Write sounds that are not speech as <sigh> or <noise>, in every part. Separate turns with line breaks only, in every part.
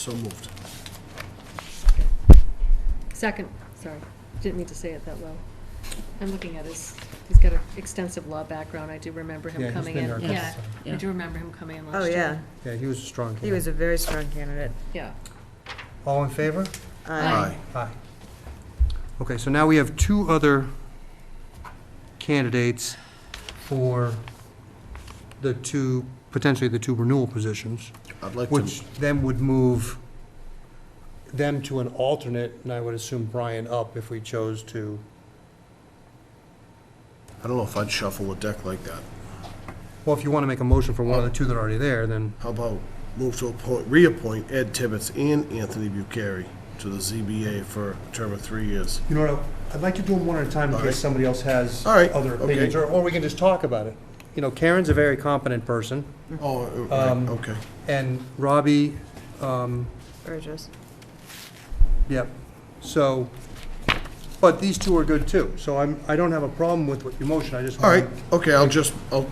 So moved.
Second, sorry, didn't mean to say it that low. I'm looking at his, he's got an extensive law background, I do remember
Yeah,
him
he's
coming
been
in.
there a couple times.
I do remember him coming in
Oh,
last
yeah.
year.
Yeah, he was a strong
He was
candidate.
a very strong candidate.
Yeah.
All in favor?
Uh,
Aye. Okay, so now we have two other candidates for the two, potentially the two renewal positions,
I'd like
which
to,
then would move them to an alternate, and I would assume Brian up if we chose to.
I don't know if I'd shuffle a deck like that.
Well, if you want to make a motion for one of the two that are already there, then,
How about move to appoint, reappoint Ed Tibbetts and Anthony Bucari to the ZBA for a term of three years?
you know, what, I'd like to do them one at a time in
All
case
right.
somebody else has
All right,
other
okay.
opinions, or, or we can just talk about it. You know, Karen's a very competent person,
Oh, uh,
Um,
right, okay.
and Robbie, um,
Burgess.
Yep, so, but these two are good too, so I'm, I don't have a problem with what your motion, I just.
All
want-
right, okay, I'll just, I'll,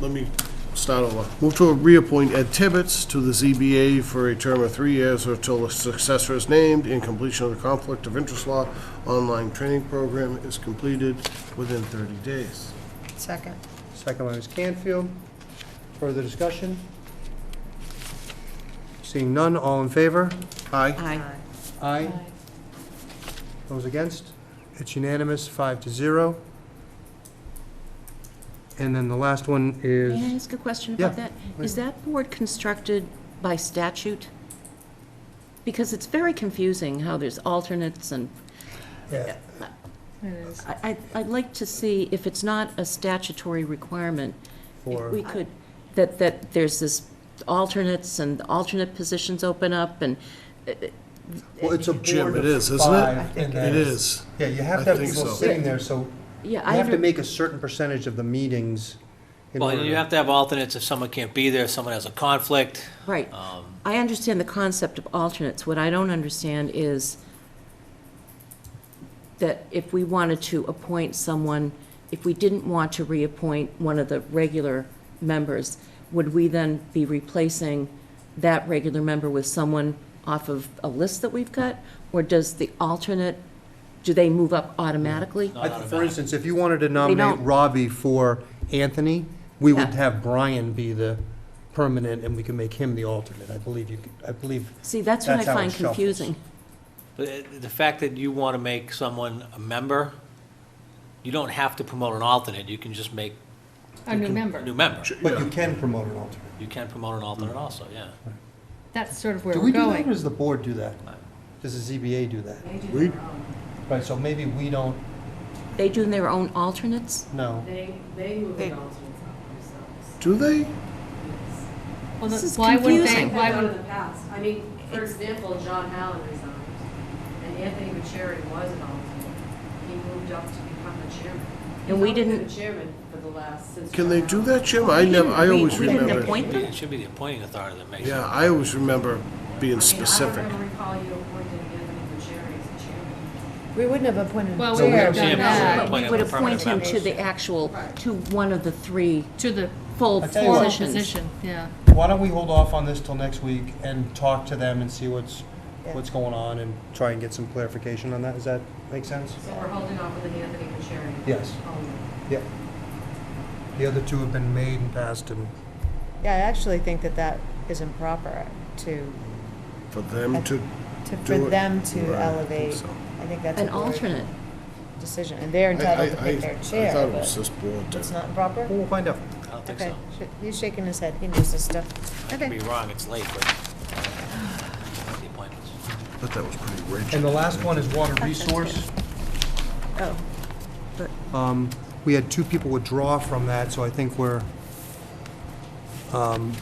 let me start over. Move to reappoint Ed Tibbetts to the ZBA for a term of three years or till a successor is named and completion of the Conflict of Interest Law online training program is completed within 30 days.
Second.
Second one is Canfield, further discussion? Seeing none, all in favor?
Aye.
Aye.
Aye. Those against? It's unanimous, five to zero. And then the last one
May I
is,
ask a question
Yeah,
about that? Is that board constructed by statute? Because it's very confusing how there's alternates and,
It is.
I, I- I'd like to see if it's not a statutory requirement,
Or-
if we could, that, that there's this alternates and alternate positions open up and,
well, it's a
Jim,
board
it
of
is, isn't
five,
it?
and
It
then-
is.
Yeah, you have
I
to have
think
people
so.
sitting there, so
yeah,
you
I
have to
don't,
make a certain percentage of the meetings in
Well,
order.
and you have to have alternates if someone can't be there, if someone has a conflict.
right.
Um,
I understand the concept of alternates. What I don't understand is that if we wanted to appoint someone, if we didn't want to reappoint one of the regular members, would we then be replacing that regular member with someone off of a list that we've got? Or does the alternate, do they move up automatically?
I th- For instance, if you wanted to
don't-
nominate Robbie for Anthony, we would
Yeah.
have Brian be the permanent, and we can make him the alternate. I believe you, c- I believe,
See, that's what I
That's how it
find
shuffles.
confusing.
But, uh, The fact that you want to make someone a member, you don't have to promote an alternate, you can just make
A new
a
member.
new member.
but you can promote an alternate.
You can promote an alternate also, yeah.
That's sort of where
Do
we're
we do that, or
going.
does the board do that? Does the ZBA do that?
We,
Right, so maybe we don't
They do their own alternates?
know.
do they?
Well,
This
then
is
Why wouldn't they,
confusing.
why
Have done in
would,
the past. I mean, for example, John Allen resigned, and Anthony Bucherri was an alternate. He moved up to become the chairman. He's
And we
only been
didn't-
the chairman for the last, since.
Can they do
John
that, Jim? I never, I
We-
always
we didn't
remember.
appoint them?
It should be the appointing authority that makes
Yeah,
it.
I always remember being
Allen. I mean,
specific.
I don't ever recall you appointing Anthony Bucherri as the chairman.
We wouldn't have appointed
well,
So
we
we
have
have
done that
seen- Yeah.
But we
appointing
would
a permanent
appoint him to
member.
the actual, to one of the three
to the
full
I tell you what.
formal
positions.
position, yeah.
Why don't we hold off on this till next week and talk to them and see what's, what's going on and try and get some clarification on that? Does that make sense?
So we're holding off with an Anthony Oh, Bucherri.
Yes.
only.
Yep. The other two have been made and passed and.
Yeah, I actually think that that is improper to,
For them to,
to, for
Do it.
them to
Right, I think
elevate.
so.
I think that's a
An
board
alternate.
decision, and they're
I, I,
entitled to
I I
pick their
thought
chair,
it was
but
this board.
it's
that-
not proper?
We'll find out.
I don't think
Okay,
so.
Sh- he's shaking his head, he knows this stuff.
I could be wrong, it's late, but <sighs> the appointments.
But that was pretty rigid.
And the last one is water resource.
Oh,
Um, We had two people withdraw from that, so I think we're, um,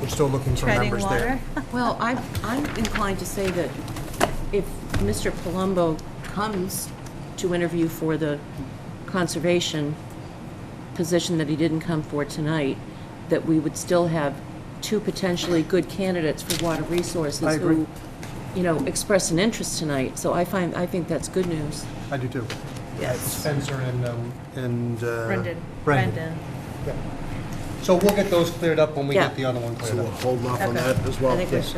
we're still looking for members there.
Well, I'm, I'm inclined to say that if Mr. Palumbo comes to interview for the conservation position that he didn't come for tonight, that we would still have two potentially good candidates for water resources
I agree.
who, you know, express an interest tonight. So I find, I think that's good news.
I do too.
yes.
Spencer and, um, and. uh,
Brendan.
Brendan.
Brendan.
So we'll get those cleared up when we
Yeah.
get the other one
So
cleared
we're
up.
holding off on
Okay.
that as well.
I think we
Yeah.
should.